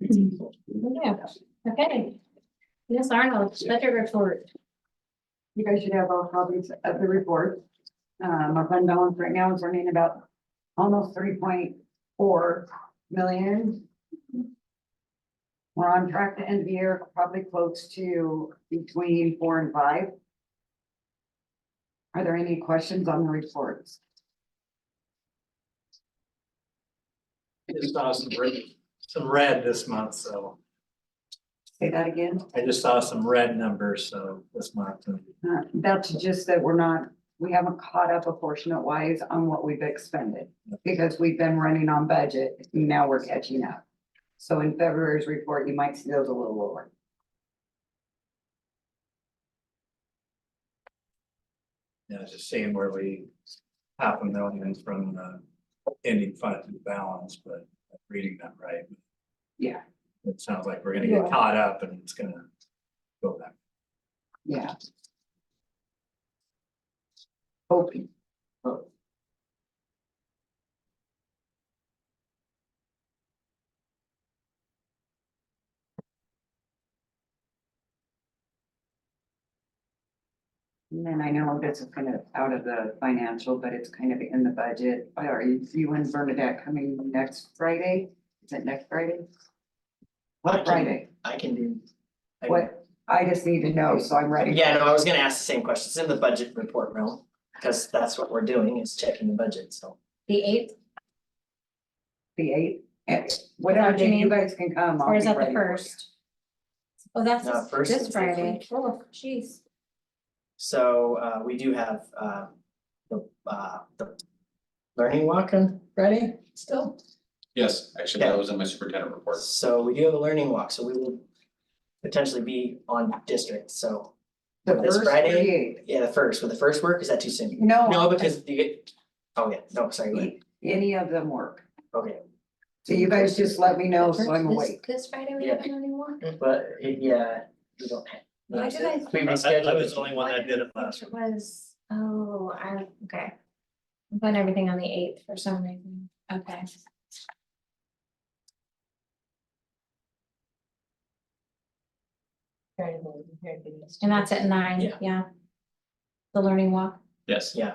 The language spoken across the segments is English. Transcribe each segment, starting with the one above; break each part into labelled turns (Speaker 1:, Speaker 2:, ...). Speaker 1: Yeah, okay. Yes, Arnold, budget report.
Speaker 2: You guys should have all copies of the report. Um, our fund balance right now is running about almost three point four million. We're on track to end the year probably close to between four and five. Are there any questions on the reports?
Speaker 3: I just saw some red, some red this month, so
Speaker 2: Say that again.
Speaker 3: I just saw some red numbers, so this month.
Speaker 2: Uh, That's just that we're not, we haven't caught up proportionate wise on what we've expended. Because we've been running on budget, now we're catching up. So in February's report, you might see those a little lower.
Speaker 3: Yeah, just seeing where we half a million from the ending fund to the balance, but reading that right.
Speaker 2: Yeah.
Speaker 3: It sounds like we're gonna get caught up and it's gonna go back.
Speaker 2: Yeah. Open. And then I know this is kind of out of the financial, but it's kind of in the budget. Are you, you and Bernadette coming next Friday? Is it next Friday?
Speaker 4: What
Speaker 2: Friday.
Speaker 4: I can do. I-
Speaker 2: What? I just need to know, so I'm ready.
Speaker 4: Yeah, no, I was gonna ask the same question. It's in the budget report realm, because that's what we're doing is checking the budget, so.
Speaker 1: The eighth,
Speaker 2: The eighth, and
Speaker 1: that
Speaker 2: whatever
Speaker 1: what you
Speaker 2: day you
Speaker 1: mean?
Speaker 2: guys can come. I'll
Speaker 1: or is
Speaker 2: be
Speaker 1: that the
Speaker 2: ready for you.
Speaker 1: first? Oh, that's
Speaker 4: No,
Speaker 1: this-
Speaker 4: first
Speaker 1: this
Speaker 4: is this week.
Speaker 1: Friday. Oh, jeez.
Speaker 4: So uh we do have uh the uh the learning walk on Friday still.
Speaker 5: Yes, actually, that was in my superintendent report.
Speaker 4: So we do have a learning walk, so we will potentially be on district, so
Speaker 2: The
Speaker 4: This
Speaker 2: first or
Speaker 4: Friday?
Speaker 2: the eighth?
Speaker 4: yeah, the first, with the first work, is that too soon?
Speaker 2: No,
Speaker 4: No, because you get, oh yeah, no, sorry, go ahead.
Speaker 2: any of them work.
Speaker 4: okay,
Speaker 2: So you guys just let me know so I'm
Speaker 1: This-
Speaker 2: awake.
Speaker 1: This Friday we
Speaker 4: Yeah.
Speaker 1: haven't anymore?
Speaker 4: but yeah, we don't have.
Speaker 1: Why did I-
Speaker 4: We
Speaker 3: I
Speaker 4: rescheduled.
Speaker 3: I was Mm-hmm. the only one that did it last.
Speaker 1: It was, oh, I, okay. I'm putting everything on the eighth for some reason. Okay. And that's at nine,
Speaker 4: Yeah.
Speaker 1: yeah. The learning walk.
Speaker 5: Yes,
Speaker 4: Yeah.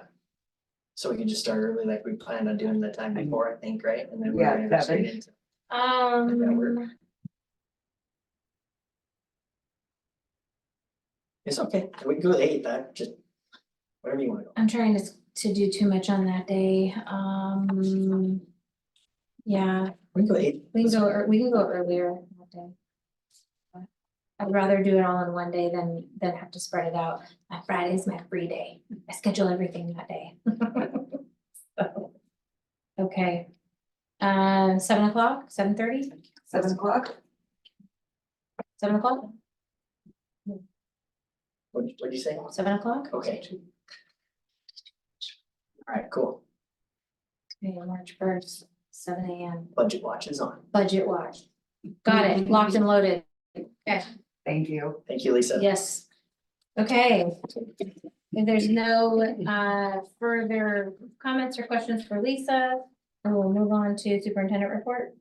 Speaker 4: So we can just start early like we planned on doing the time before, I think, right? And then we're
Speaker 2: Yeah,
Speaker 4: gonna go
Speaker 2: seven.
Speaker 4: straight into-
Speaker 1: Um,
Speaker 4: It's okay, we can go to eight, that just, whatever you wanna go.
Speaker 1: I'm trying to, s- to do too much on that day, um. Yeah,
Speaker 4: We can go to eight.
Speaker 1: we can go, ear- we can go earlier that day. I'd rather do it all in one day than, than have to spread it out. My Friday's my free day. I schedule everything that day. So, Okay. Uh, seven o'clock, seven thirty,
Speaker 2: Seven o'clock?
Speaker 1: seven o'clock,
Speaker 4: What, what'd you say?
Speaker 1: seven o'clock?
Speaker 4: Okay. Alright, cool.
Speaker 1: Okay, March first, seven AM,
Speaker 4: Budget watch is on.
Speaker 1: budget watch. Got it, locked and loaded,
Speaker 2: Thank you.
Speaker 4: Thank you, Lisa.
Speaker 1: yes. Okay. If there's no uh further comments or questions for Lisa, then we'll move on to superintendent report.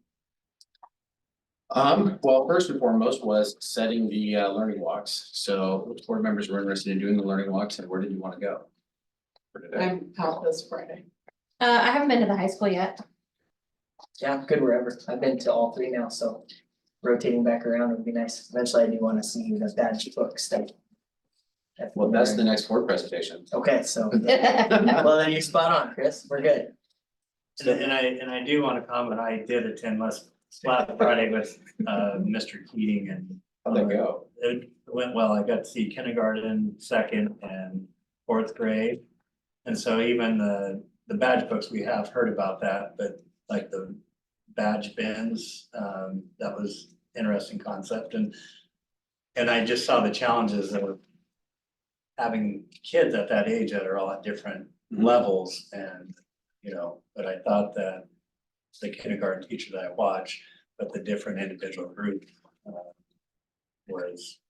Speaker 5: um, well, first and foremost was setting the uh learning walks, so which board members were interested in doing the learning walks and where did you wanna go? For today,
Speaker 6: I'm out this Friday.
Speaker 1: Uh, I haven't been to the high school yet.
Speaker 4: Yeah, good wherever. I've been to all three now, so rotating back around would be nice. Eventually I do wanna see the badge book stuff.
Speaker 5: well, that's the next board presentation.
Speaker 4: Okay, so, well, then you're spot on, Chris. We're good.
Speaker 3: And and I, and I do wanna comment, I did attend last, last Friday with, uh, Mr. Keating and
Speaker 5: How'd that go?
Speaker 3: it went well. I got to see kindergarten, second and fourth grade. And so even the, the badge books, we have heard about that, but like the badge bins, um, that was interesting concept and. And I just saw the challenges that were having kids at that age that are all at different levels and, you know, but I thought that. The kindergarten teacher that I watched, but the different individual group, uh, was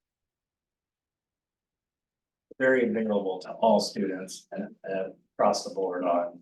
Speaker 3: very available to all students and uh, across the board on